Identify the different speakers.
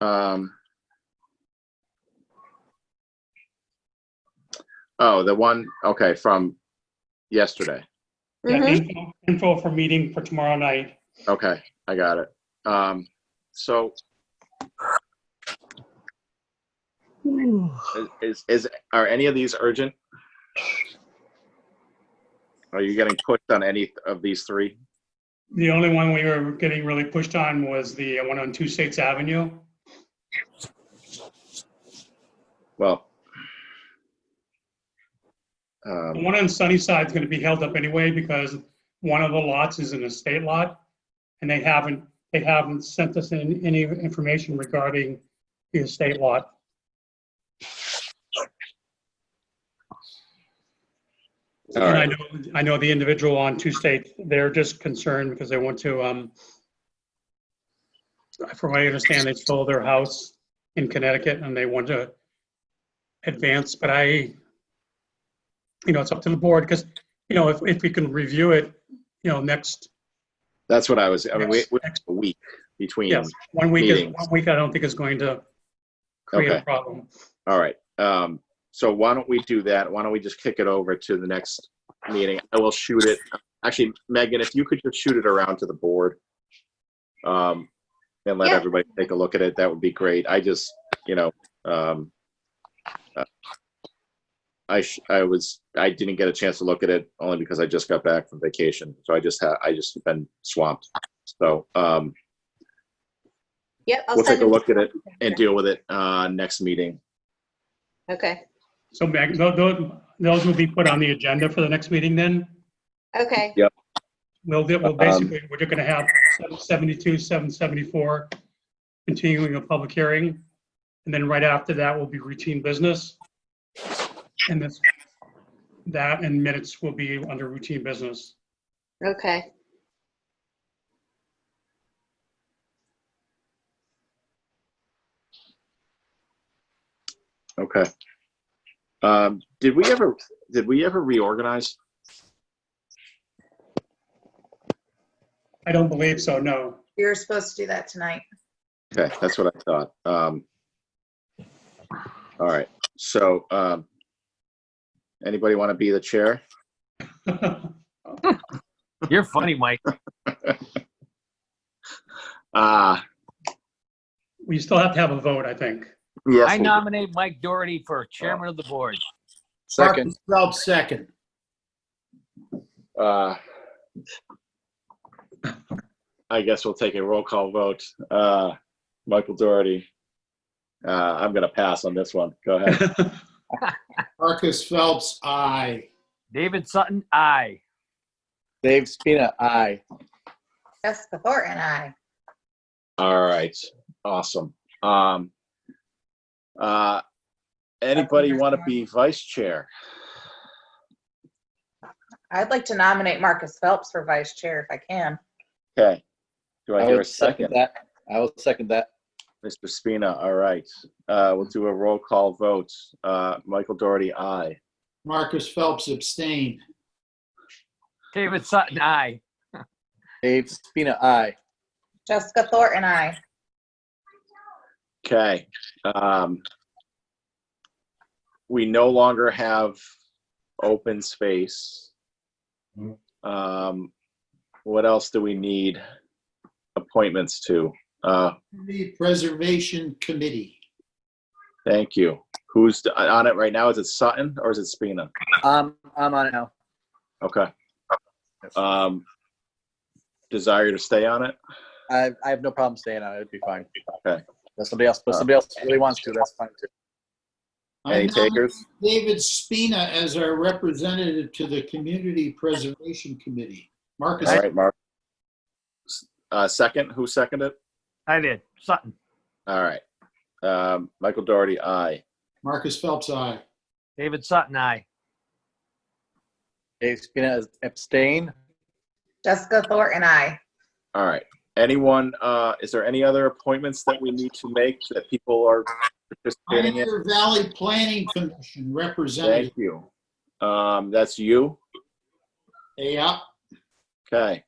Speaker 1: um, oh, the one, okay, from yesterday.
Speaker 2: Yeah,
Speaker 3: Mm-hmm.
Speaker 4: Mhm.
Speaker 2: info- info for meeting for tomorrow night.
Speaker 1: Okay, I got it. Um, so is- is, is, are any of these urgent? Are you getting pushed on any of these three?
Speaker 2: The only one we were getting really pushed on was the one on Two States Avenue.
Speaker 1: Well.
Speaker 2: The
Speaker 1: Um,
Speaker 2: one on Sunnyside is going to be held up anyway because one of the lots is an estate lot. And they haven't, they haven't sent us in any information regarding the estate lot.
Speaker 1: all
Speaker 2: And I
Speaker 1: right,
Speaker 2: know, I know the individual on Two States, they're just concerned because they want to, um, from what I understand, they sold their house in Connecticut and they want to advance, but I, you know, it's up to the board because, you know, if, if we can review it, you know, next,
Speaker 1: that's what I was, I mean, we,
Speaker 2: next,
Speaker 1: we,
Speaker 2: next-
Speaker 1: a week between.
Speaker 2: yes, one week is,
Speaker 1: meetings.
Speaker 2: one week I don't think is going to create a
Speaker 1: Okay.
Speaker 2: problem.
Speaker 1: All right. Um, so why don't we do that? Why don't we just kick it over to the next meeting? I will shoot it. Actually, Megan, if you could just shoot it around to the board. Um, and let
Speaker 4: Yeah.
Speaker 1: everybody take a look at it, that would be great. I just, you know, um, uh, I, sh- I was, I didn't get a chance to look at it only because I just got back from vacation. So I just had, I just been swamped. So, um,
Speaker 4: Yep, I'll
Speaker 1: we'll take
Speaker 4: send
Speaker 1: a
Speaker 4: them.
Speaker 1: look at it and deal with it, uh, next meeting.
Speaker 4: Okay,
Speaker 2: So Meg, tho- tho- those will be put on the agenda for the next meeting then?
Speaker 4: okay,
Speaker 2: We'll, do- we'll
Speaker 1: Um,
Speaker 2: basically, we're just gonna have 772, 774, continuing a public hearing. And then right after that will be routine business. And this, that and minutes will be under routine business.
Speaker 4: okay.
Speaker 1: Okay. Um, did we ever, did we ever reorganize?
Speaker 2: I don't believe so, no.
Speaker 3: You were supposed to do that tonight.
Speaker 1: Okay, that's what I thought. Um, all right, so, um, anybody want to be the chair?
Speaker 5: You're funny, Mike.
Speaker 1: Uh,
Speaker 2: We still have to have a vote, I think.
Speaker 1: yes.
Speaker 5: I
Speaker 1: we-
Speaker 5: nominate Mike Doherty for chairman of the board.
Speaker 1: Second,
Speaker 6: Phelps, second.
Speaker 1: uh, I guess we'll take a roll call vote. Uh, Michael Doherty. Uh, I'm gonna pass on this one. Go ahead.
Speaker 6: Marcus Phelps, aye.
Speaker 5: David Sutton, aye.
Speaker 7: Dave Spina, aye.
Speaker 3: Jessica Thornton, I.
Speaker 1: All right, awesome. Um, uh, anybody want to be vice chair?
Speaker 3: I'd like to nominate Marcus Phelps for vice chair if I can.
Speaker 1: Okay. Do I hear a
Speaker 7: would
Speaker 1: second?
Speaker 7: that. I will second that.
Speaker 1: Mr. Spina, all right. Uh, we'll do a roll call vote. Uh, Michael Doherty, aye.
Speaker 6: Marcus Phelps abstained.
Speaker 5: David Sutton, aye.
Speaker 7: Dave Spina, aye.
Speaker 3: Jessica Thornton, I.
Speaker 1: Okay. Um, we no longer have open space. Um, what else do we need appointments to? Uh,
Speaker 6: The Preservation Committee.
Speaker 1: thank you. Who's uh, on it right now? Is it Sutton or is it Spina?
Speaker 7: Um, I'm on it now.
Speaker 1: Okay. Um, desire to stay on it?
Speaker 7: I, I have no problem staying on it. It'd be fine.
Speaker 1: Okay.
Speaker 7: If somebody else, if somebody else really wants to, that's fine too.
Speaker 6: I
Speaker 1: Any
Speaker 6: nominate
Speaker 1: takers?
Speaker 6: David Spina as our representative to the Community Preservation Committee. Marcus,
Speaker 1: All right, Mark. Uh, second, who seconded?
Speaker 5: I did. Sutton.
Speaker 1: All right. Um, Michael Doherty, aye.
Speaker 6: Marcus Phelps, aye.
Speaker 5: David Sutton, aye.
Speaker 7: Dave Spina is abstain.
Speaker 3: Jessica Thornton, I.
Speaker 1: All right. Anyone, uh, is there any other appointments that we need to make that people are participating in?
Speaker 6: Pioneer Valley Planning Commission representative.
Speaker 1: Thank you. Um, that's you.
Speaker 6: Yeah,
Speaker 1: Okay.